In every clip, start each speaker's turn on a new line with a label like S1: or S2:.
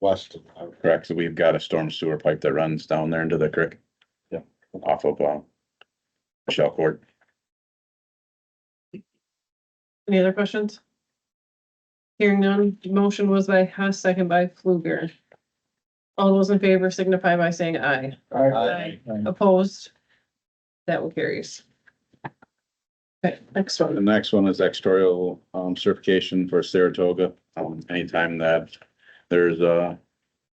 S1: west of the highway.
S2: Correct, so we've got a storm sewer pipe that runs down there into the creek.
S1: Yeah.
S2: Off of, um, Shell Court.
S3: Any other questions? Hearing none, motion was by Hess, second by Fluger. All those in favor signify by saying aye. Aye. Opposed? That one carries. Okay, next
S2: The
S3: one.
S2: next one is exterior um, certification for Saratoga. Um, anytime that there's a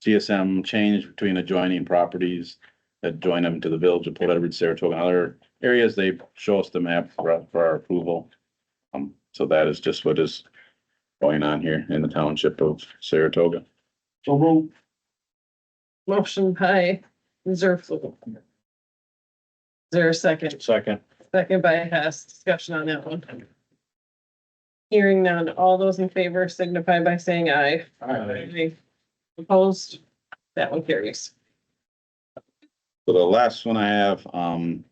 S2: CSM change between adjoining properties that join them to the village of Port Edward, Saratoga, and other areas, they show us the map for, for our approval. Um, so that is just what is going on here in the township of Saratoga.
S1: So move.
S3: Motion by Reserve Fluger. Is there a second?
S1: Second.
S3: Second by Hess, discussion on that one. Hearing none, all those in favor signify by saying aye. Aye. Opposed? That one carries.
S2: So the last one I have, um,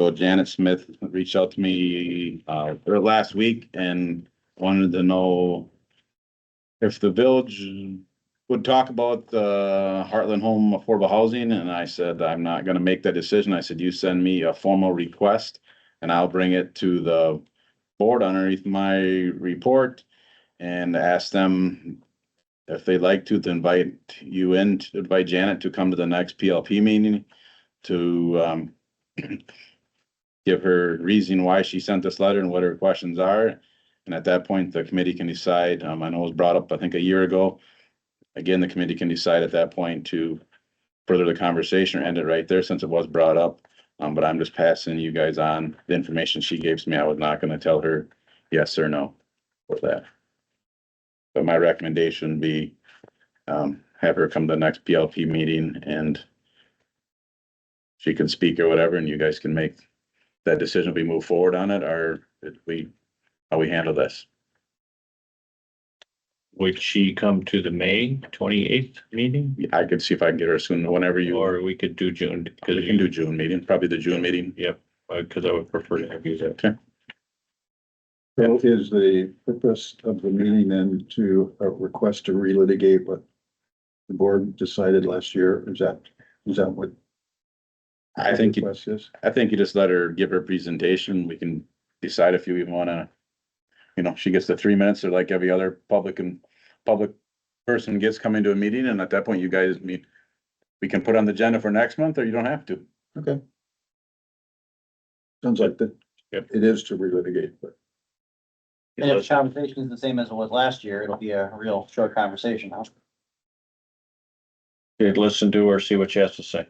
S2: so Janet Smith reached out to me, uh, or last week and wanted to know if the village would talk about, the Heartland Home Affordable Housing, and I said, I'm not gonna make that decision. I said, you send me a formal request and I'll bring it to the board underneath my report and ask them if they'd like to, to invite you in, to invite Janet to come to the next PLP meeting to, um, give her reason why she sent this letter and what her questions are. And at that point, the committee can decide, um, I know it was brought up, I think, a year ago. Again, the committee can decide at that point to further the conversation or end it right there since it was brought up. Um, but I'm just passing you guys on the information she gave me. I was not gonna tell her yes or no for that. But my recommendation would be, um, have her come to the next PLP meeting and she can speak or whatever, and you guys can make that decision, if we move forward on it, or if we, how we handle this.
S4: Would she come to the May twenty-eighth meeting?
S2: I could see if I can get her soon, whenever you, or
S4: Or we could do June, because
S2: we can do June meeting, probably the June meeting.
S4: because I would prefer to have you there.
S5: So is the purpose of the meeting then to uh, request to relitigate what the board decided last year? Is that, is that what?
S2: I think,
S5: the
S2: you-
S5: request is?
S2: I think you just let her give her presentation, we can decide if you even wanna, you know, she gets the three minutes, or like every other public and, public person gets coming to a meeting, and at that point, you guys meet. We can put on the agenda for next month, or you don't have to.
S5: Okay. Sounds like that.
S4: Yep.
S5: It is to relitigate, but
S6: And if the conversation is the same as it was last year, it'll be a real short conversation, huh?
S4: Okay, Listen to her, see what she has to say.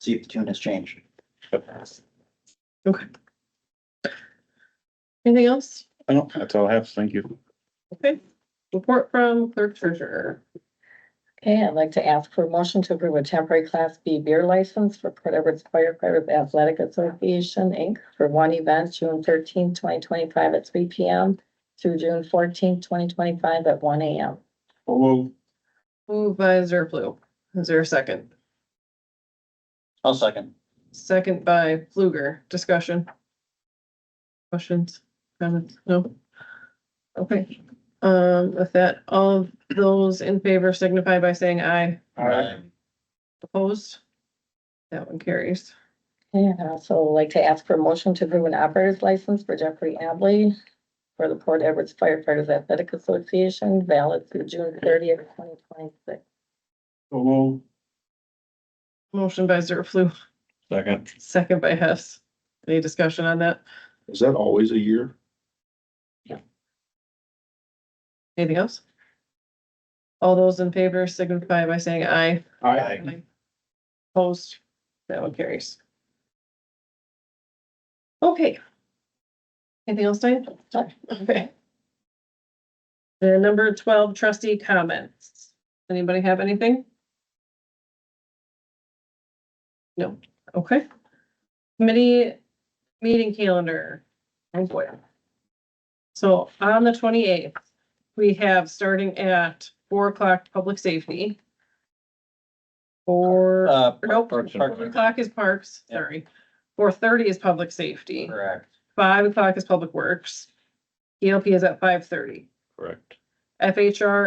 S6: See if the tune has changed.
S3: Anything else?
S2: I don't, that's all I have, thank you.
S3: Okay, report from clerk treasurer.
S7: Okay, I'd like to ask for a motion to approve a temporary class B beer license for Port Edwards Firefighters Athletic Association, Inc. For one event, June thirteenth, twenty twenty-five at three P M through June fourteenth, twenty twenty-five at one A M.
S3: Moved by Zerflu. Is there a second?
S6: I'll second.
S3: Second by Fluger. Discussion. Questions, comments? No? Okay, um, with that, all of those in favor signify by saying aye.
S6: Aye.
S3: Opposed? That one carries.
S7: And I'd also like to ask for a motion to approve an operator's license for Jeffrey Abley for the Port Edwards Firefighters Athletic Association, valid through June thirtieth, twenty twenty-six.
S3: Motion by Zerflu,
S4: Second,
S3: second by Hess. Any discussion on that?
S5: is that always a year?
S3: Anything else? All those in favor signify by saying aye. Aye. Opposed, that one carries. Okay. Anything else, Diane?
S7: No.
S3: Okay. The number twelve trustee comments. Anybody have anything? No, okay. Committee meeting calendar. Oh, boy. So on the twenty-eighth, we have starting at four o'clock, public safety. Four.
S6: Uh,
S3: Nope,
S6: Parks and
S3: four o'clock is parks,
S6: Yeah.
S3: sorry. Four thirty is public safety,
S6: Correct.
S3: E five o'clock is public works. ELP is at five thirty.
S4: correct.
S3: FHR